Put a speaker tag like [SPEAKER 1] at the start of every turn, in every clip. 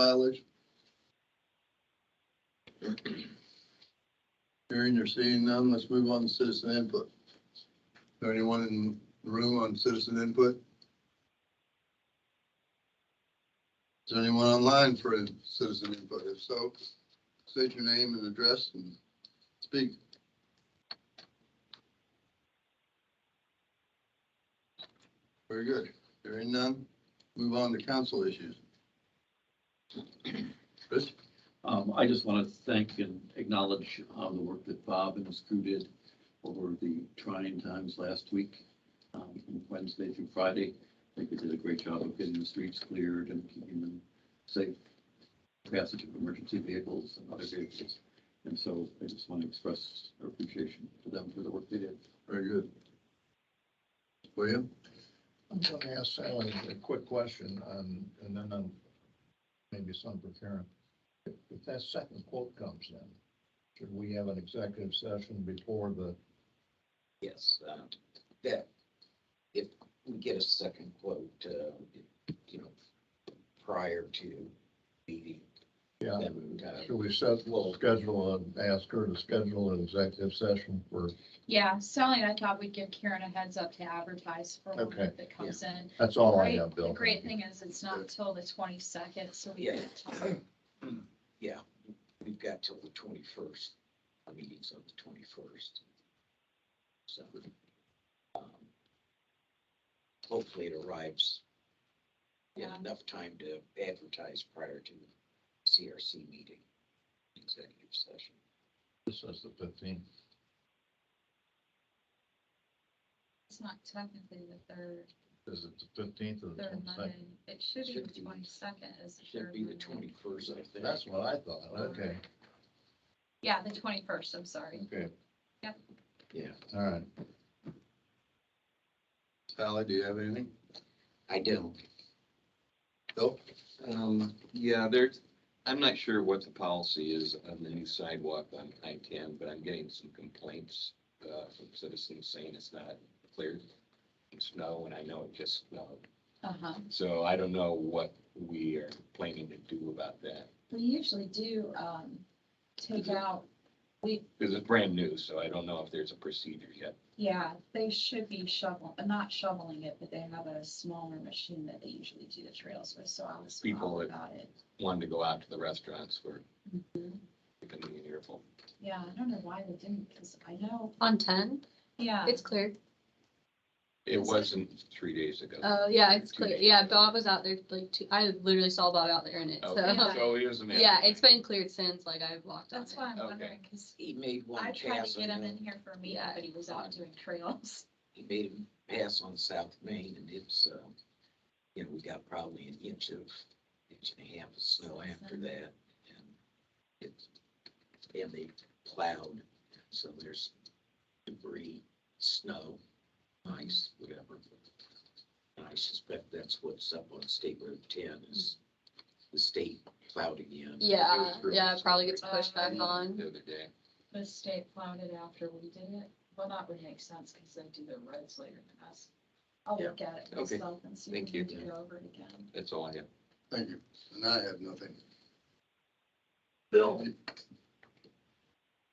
[SPEAKER 1] violation? Hearing or seeing none, let's move on to citizen input. Is there anyone in the room on citizen input? Is there anyone online for citizen input? If so, state your name and address and speak. Very good. Hearing none, move on to council issues. Chris?
[SPEAKER 2] Um, I just want to thank and acknowledge, um, the work that Bob and his crew did over the trying times last week, um, from Wednesday through Friday. I think they did a great job of getting the streets cleared and keeping them safe, passage of emergency vehicles and other vehicles. And so I just want to express our appreciation to them for the work they did.
[SPEAKER 1] Very good. William?
[SPEAKER 3] I'm going to ask Sally a quick question, um, and then um, maybe some for Karen. If if that second quote comes in, should we have an executive session before the,
[SPEAKER 4] Yes, um, that, if we get a second quote, uh, you know, prior to meeting,
[SPEAKER 3] yeah,
[SPEAKER 4] then, uh,
[SPEAKER 3] should we set, we'll schedule, and ask her to schedule an executive session for,
[SPEAKER 5] Yeah, Sally and I thought we'd give Karen a heads up to advertise for one
[SPEAKER 3] Okay.
[SPEAKER 5] that comes in.
[SPEAKER 3] that's all I
[SPEAKER 5] Great-
[SPEAKER 3] have, Bill.
[SPEAKER 5] The great thing is it's not till the twenty-second, so we
[SPEAKER 4] Yeah.
[SPEAKER 5] have time.
[SPEAKER 4] yeah, we've got till the twenty-first, our meeting's on the twenty-first. So, um, hopefully it arrives in
[SPEAKER 5] Yeah.
[SPEAKER 4] enough time to advertise prior to the CRC meeting, executive session.
[SPEAKER 3] This is the fifteenth.
[SPEAKER 5] It's not technically the third,
[SPEAKER 3] Is it the fifteenth or the
[SPEAKER 5] third
[SPEAKER 3] twenty-second?
[SPEAKER 5] Monday. It should be
[SPEAKER 4] Should be-
[SPEAKER 5] the twenty-second is the
[SPEAKER 4] Should
[SPEAKER 5] third
[SPEAKER 4] be the
[SPEAKER 5] Monday.
[SPEAKER 4] twenty-first, I think.
[SPEAKER 3] That's what I thought, okay,
[SPEAKER 5] Yeah, the twenty-first, I'm sorry.
[SPEAKER 3] okay,
[SPEAKER 4] Yeah.
[SPEAKER 3] all right.
[SPEAKER 1] Sally, do you have anything?
[SPEAKER 4] I don't.
[SPEAKER 1] Nope.
[SPEAKER 6] Oh, Um, yeah, there's, I'm not sure what the policy is on the new sidewalk on I ten, but I'm getting some complaints, uh, from citizens saying it's not cleared. in Snow, and I know it just snowed,
[SPEAKER 5] Uh-huh.
[SPEAKER 6] so I don't know what we are planning to do about that,
[SPEAKER 5] We usually do, um, take out, we,
[SPEAKER 6] because it's brand new, so I don't know if there's a procedure yet.
[SPEAKER 5] yeah, they should be shoveling, not shoveling it, but they have a smaller machine that they usually do the trails with, so I was
[SPEAKER 6] People
[SPEAKER 5] all
[SPEAKER 6] that-
[SPEAKER 5] about it.
[SPEAKER 6] Wanted to go out to the restaurants for,
[SPEAKER 7] Mm-hmm.
[SPEAKER 5] Mhm.
[SPEAKER 6] it can be an earful.
[SPEAKER 5] Yeah, I don't know why they didn't, because I know,
[SPEAKER 7] On ten,
[SPEAKER 5] yeah.
[SPEAKER 7] it's cleared.
[SPEAKER 6] It wasn't three days ago.
[SPEAKER 7] Oh, yeah, it's
[SPEAKER 6] Two
[SPEAKER 7] clear.
[SPEAKER 6] days.
[SPEAKER 7] Yeah, Bob was out there like two, I literally saw Bob out there in it,
[SPEAKER 6] Okay,
[SPEAKER 7] so.
[SPEAKER 5] Yeah.
[SPEAKER 6] so it is an.
[SPEAKER 7] Yeah, it's been cleared since, like I've walked on
[SPEAKER 5] That's
[SPEAKER 7] it.
[SPEAKER 5] why I'm
[SPEAKER 6] Okay.
[SPEAKER 5] wondering, because
[SPEAKER 4] He made one
[SPEAKER 5] I
[SPEAKER 4] pass.
[SPEAKER 5] tried to get
[SPEAKER 4] on
[SPEAKER 5] him
[SPEAKER 4] the-
[SPEAKER 5] in here for a meeting,
[SPEAKER 7] Yeah.
[SPEAKER 5] but he was out doing trails.
[SPEAKER 4] He made him pass on South Main and it's, uh, you know, we got probably an inch of, inch and a half of snow after
[SPEAKER 7] Mm-hmm.
[SPEAKER 4] that. And it's, and they plowed, so there's debris, snow, ice, whatever. And I suspect that's what's up on State Road ten is the state plowed again.
[SPEAKER 7] Yeah,
[SPEAKER 6] It was
[SPEAKER 7] yeah,
[SPEAKER 6] really
[SPEAKER 7] probably gets
[SPEAKER 5] slippery.
[SPEAKER 7] pushed back on.
[SPEAKER 6] The other day.
[SPEAKER 5] The state plowed it after we did it. Well, that would make sense because they do their roads later than us. I'll
[SPEAKER 4] Yeah.
[SPEAKER 5] look at it
[SPEAKER 6] Okay.
[SPEAKER 5] myself and see if
[SPEAKER 6] Thank
[SPEAKER 5] we
[SPEAKER 6] you.
[SPEAKER 5] need to go over it again.
[SPEAKER 6] That's all I have.
[SPEAKER 1] Thank you. And I have nothing.
[SPEAKER 8] Bill,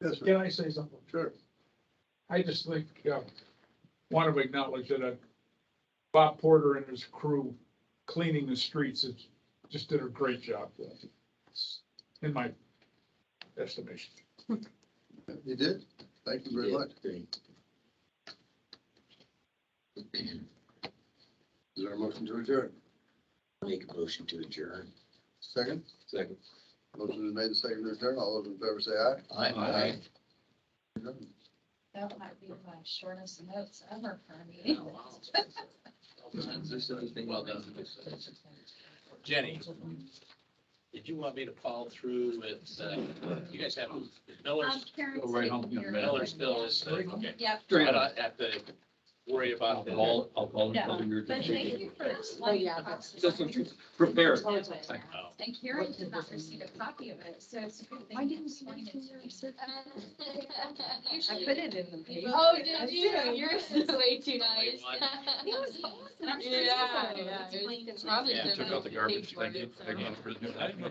[SPEAKER 1] Yes, sir.
[SPEAKER 8] can I say something?
[SPEAKER 1] Sure.
[SPEAKER 8] I just think, uh, want to acknowledge that uh, Bob Porter and his crew cleaning the streets is, just did a great job. In my estimation.
[SPEAKER 1] You did? Thank you very
[SPEAKER 4] Yeah,
[SPEAKER 1] much.
[SPEAKER 4] they-
[SPEAKER 1] Is there a motion to adjourn?
[SPEAKER 4] Make a motion to adjourn.
[SPEAKER 1] Second?
[SPEAKER 6] Second.
[SPEAKER 1] Motion is made, second to adjourn. All those in favor say aye.
[SPEAKER 3] I,
[SPEAKER 5] That might be my shortest notes ever for a
[SPEAKER 4] Oh,
[SPEAKER 6] Oh,
[SPEAKER 5] meeting.
[SPEAKER 9] Well done. Jenny, did you want me to follow through with, uh, you guys have
[SPEAKER 5] Um,
[SPEAKER 9] Miller's,
[SPEAKER 5] Karen's
[SPEAKER 2] Go right home,
[SPEAKER 5] taking
[SPEAKER 2] yeah,
[SPEAKER 5] care of
[SPEAKER 9] Miller's
[SPEAKER 5] it.
[SPEAKER 9] still is, uh, okay.
[SPEAKER 5] Yep,
[SPEAKER 9] I don't have to worry about the whole.
[SPEAKER 2] Alcohol, alcohol,
[SPEAKER 5] Yeah,
[SPEAKER 2] whether you're-
[SPEAKER 5] but thank you for explaining.
[SPEAKER 7] yeah,
[SPEAKER 5] about it.
[SPEAKER 2] Doesn't prepare.
[SPEAKER 5] And Karen did not receive a copy of it, so it's a good thing. Why didn't I put it in the paper.
[SPEAKER 7] Oh, did you? You're way too nice.
[SPEAKER 5] It was awesome. I'm sure it's
[SPEAKER 7] Yeah,
[SPEAKER 5] awesome.
[SPEAKER 7] yeah.
[SPEAKER 5] It's plain and
[SPEAKER 7] It's probably
[SPEAKER 9] Yeah,
[SPEAKER 7] been
[SPEAKER 9] took out the
[SPEAKER 7] like paid
[SPEAKER 9] garbage.
[SPEAKER 7] for
[SPEAKER 9] Thank
[SPEAKER 7] it,
[SPEAKER 9] you.
[SPEAKER 7] so.
[SPEAKER 9] Again, for the-